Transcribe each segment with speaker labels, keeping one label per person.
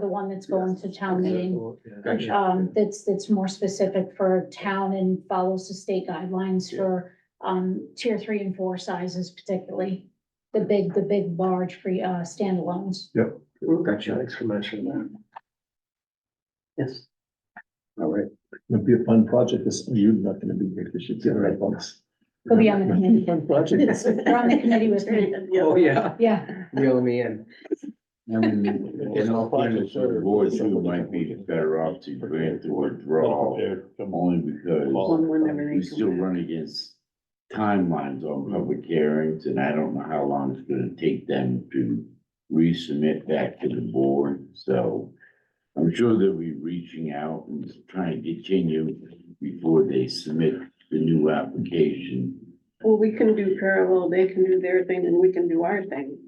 Speaker 1: one that's going to town
Speaker 2: Okay.
Speaker 1: meeting.
Speaker 2: Gotcha.
Speaker 1: Um, that's, that's more specific for town and follows the state guidelines
Speaker 2: Yeah.
Speaker 1: for, um, tier three and four sizes particularly. The big, the big large free, uh, standalones.
Speaker 2: Gotcha, thanks for mentioning that.
Speaker 3: Yes.
Speaker 2: All right,
Speaker 4: It'd be a fun project, this, you're not gonna be here, because you're right, folks.
Speaker 1: We'll be on the committee.
Speaker 4: Fun project.
Speaker 1: We're on the committee with me.
Speaker 2: oh, yeah,
Speaker 1: Yeah,
Speaker 2: reel me in.
Speaker 5: I mean, in all fairness, the board too might be better off to grant or withdraw, only because
Speaker 3: One we're never
Speaker 5: we still
Speaker 3: gonna
Speaker 5: run against timelines on public hearings, and I don't know how long it's gonna take them to resubmit back to the board, so I'm sure they'll be reaching out and trying to continue before they submit the new application.
Speaker 3: Well, we can do parallel, they can do their thing and we can do our thing.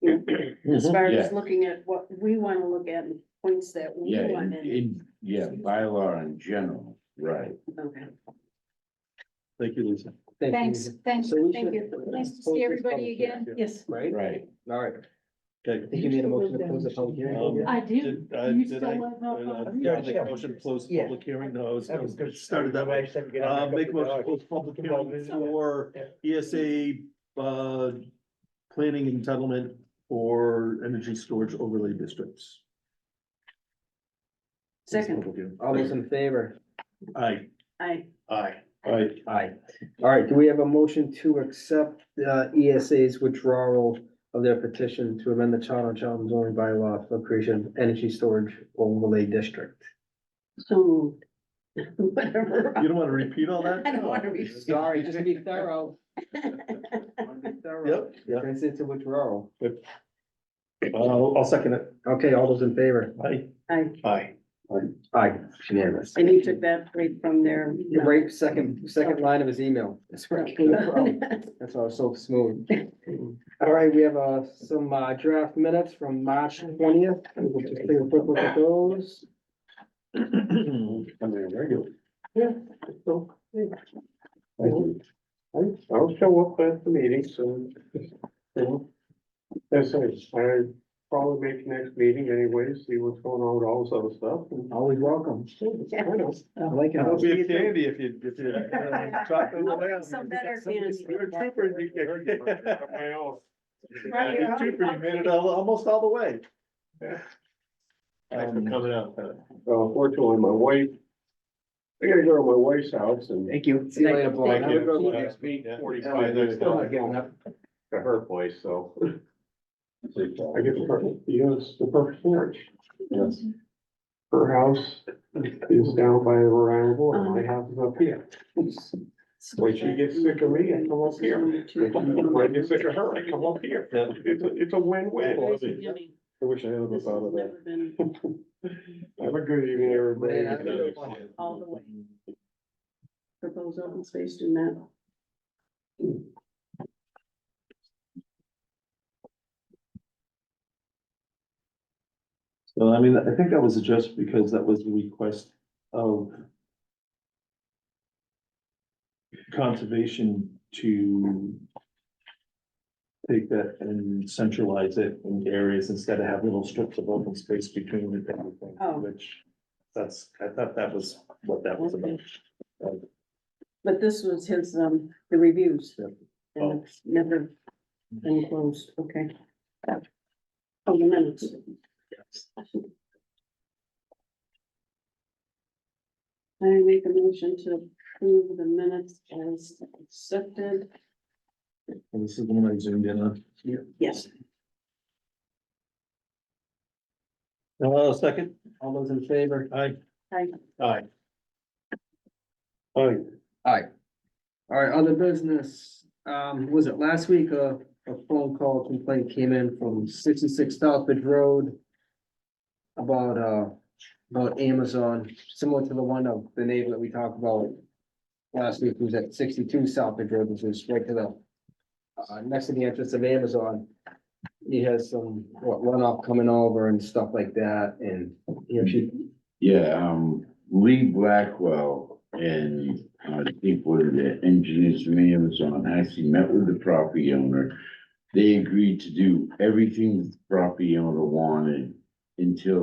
Speaker 3: You know, As far as
Speaker 5: Yeah.
Speaker 3: looking at what we wanna look at and points that we
Speaker 5: Yeah,
Speaker 3: want
Speaker 5: in,
Speaker 3: in.
Speaker 5: in, yeah, bylaw in general, right.
Speaker 3: Okay.
Speaker 2: Thank you, Lisa.
Speaker 1: thanks, thanks,
Speaker 2: So we
Speaker 1: thank
Speaker 2: should-
Speaker 1: you. Nice to see everybody again.
Speaker 3: Yes.
Speaker 2: Right,
Speaker 5: Right.
Speaker 2: all right. Okay.
Speaker 6: Did you made a motion to close the public hearing?
Speaker 1: I do.
Speaker 2: Did, uh,
Speaker 1: You
Speaker 2: did
Speaker 1: still
Speaker 2: I,
Speaker 1: have no
Speaker 2: uh,
Speaker 1: problem?
Speaker 2: yeah, I make a motion to close the
Speaker 6: Yeah.
Speaker 2: public hearing, no, it's, started that way. Uh, make a motion to close the public hearing for ESA, uh, planning entitlement for energy storage overlay districts.
Speaker 3: Second,
Speaker 6: All those in favor?
Speaker 2: Aye.
Speaker 3: I,
Speaker 2: Aye. Aye.
Speaker 6: Aye. All right, do we have a motion to accept uh ESA's withdrawal of their petition to amend the Charter Charles zoning bylaw for creation of energy storage overlay district?
Speaker 3: so moved. Whatever.
Speaker 2: You don't wanna repeat all that?
Speaker 3: I don't wanna repeat.
Speaker 6: Sorry, just be thorough.
Speaker 2: Yep, yeah,
Speaker 6: Consent to withdrawal.
Speaker 2: I'll, I'll second it.
Speaker 6: Okay, all those in favor?
Speaker 2: Aye.
Speaker 3: I,
Speaker 2: Aye.
Speaker 6: Aye, it's unanimous.
Speaker 3: and you took that right from there.
Speaker 6: You're right, second, second line of his email. That's where it came from. That's why I was so smooth. All right, we have uh some uh draft minutes from March twentieth. We'll just take a quick look at those.
Speaker 2: I mean, regular.
Speaker 6: Thank you.
Speaker 7: I'll show up at the meeting soon. That's it, I probably make next meeting anyway, see what's going on with all this other stuff. and-
Speaker 6: Always welcome.
Speaker 3: Yeah.
Speaker 6: I like
Speaker 2: It'll
Speaker 6: it.
Speaker 2: be a candy if you, if you. uh, chop them away.
Speaker 3: Some better candy.
Speaker 2: You're a trooper, you-
Speaker 7: My own.
Speaker 3: Right,
Speaker 2: You're a trooper, you made it
Speaker 7: Uh,
Speaker 2: al- almost all the way.
Speaker 7: Thanks for
Speaker 2: coming out.
Speaker 7: So fortunately, my wife, I gotta go to my wife's house and.
Speaker 6: Thank you. See you later, Paul.
Speaker 7: I
Speaker 6: Have a
Speaker 7: gotta
Speaker 6: good
Speaker 7: go
Speaker 6: one.
Speaker 7: next week,
Speaker 2: Yeah.
Speaker 7: forty-five, I'm still not getting up to her place, so. I get the perfect, you know, it's the perfect marriage.
Speaker 2: Yes.
Speaker 7: Her house is down by the Rhode Island border, my house is up here. When she gets sick of me, I come up here. When I get sick of her, I come up here.
Speaker 2: Yeah.
Speaker 7: It's, a- it's a win-win. I wish I had
Speaker 3: This has never been
Speaker 7: Have a good evening, everybody.
Speaker 6: Have a good one.
Speaker 3: all the way. Propose open space to map.
Speaker 2: So I mean, I think that was addressed because that was the request of conservation to take that and centralize it in areas instead of have little strips of open space between it and everything,
Speaker 3: Oh.
Speaker 2: which that's, I thought that was what that was about.
Speaker 3: But this was his, um, the reviews.
Speaker 2: Yep.
Speaker 3: And it's never been closed, okay. Oh, the minutes. I make a motion to approve the minutes as accepted.
Speaker 2: And this is the one I zoomed in on.
Speaker 3: Yes.
Speaker 2: Uh, second?
Speaker 6: All those in favor?
Speaker 2: Aye.
Speaker 3: I,
Speaker 2: Aye. Aye.
Speaker 6: All right, other business, um, was it last week, a, a phone call complaint came in from sixty-six Southbridge Road about, uh, about Amazon, similar to the one of the neighbor that we talked about last week, who's at sixty-two Southbridge Road, which is right to the uh, next to the entrance of Amazon. He has some what, runoff coming over and stuff like that, and, you know, she,
Speaker 5: Yeah, um, Lee Blackwell and I think one of the engineers from Amazon actually met with the property owner. They agreed to do everything the property owner wanted until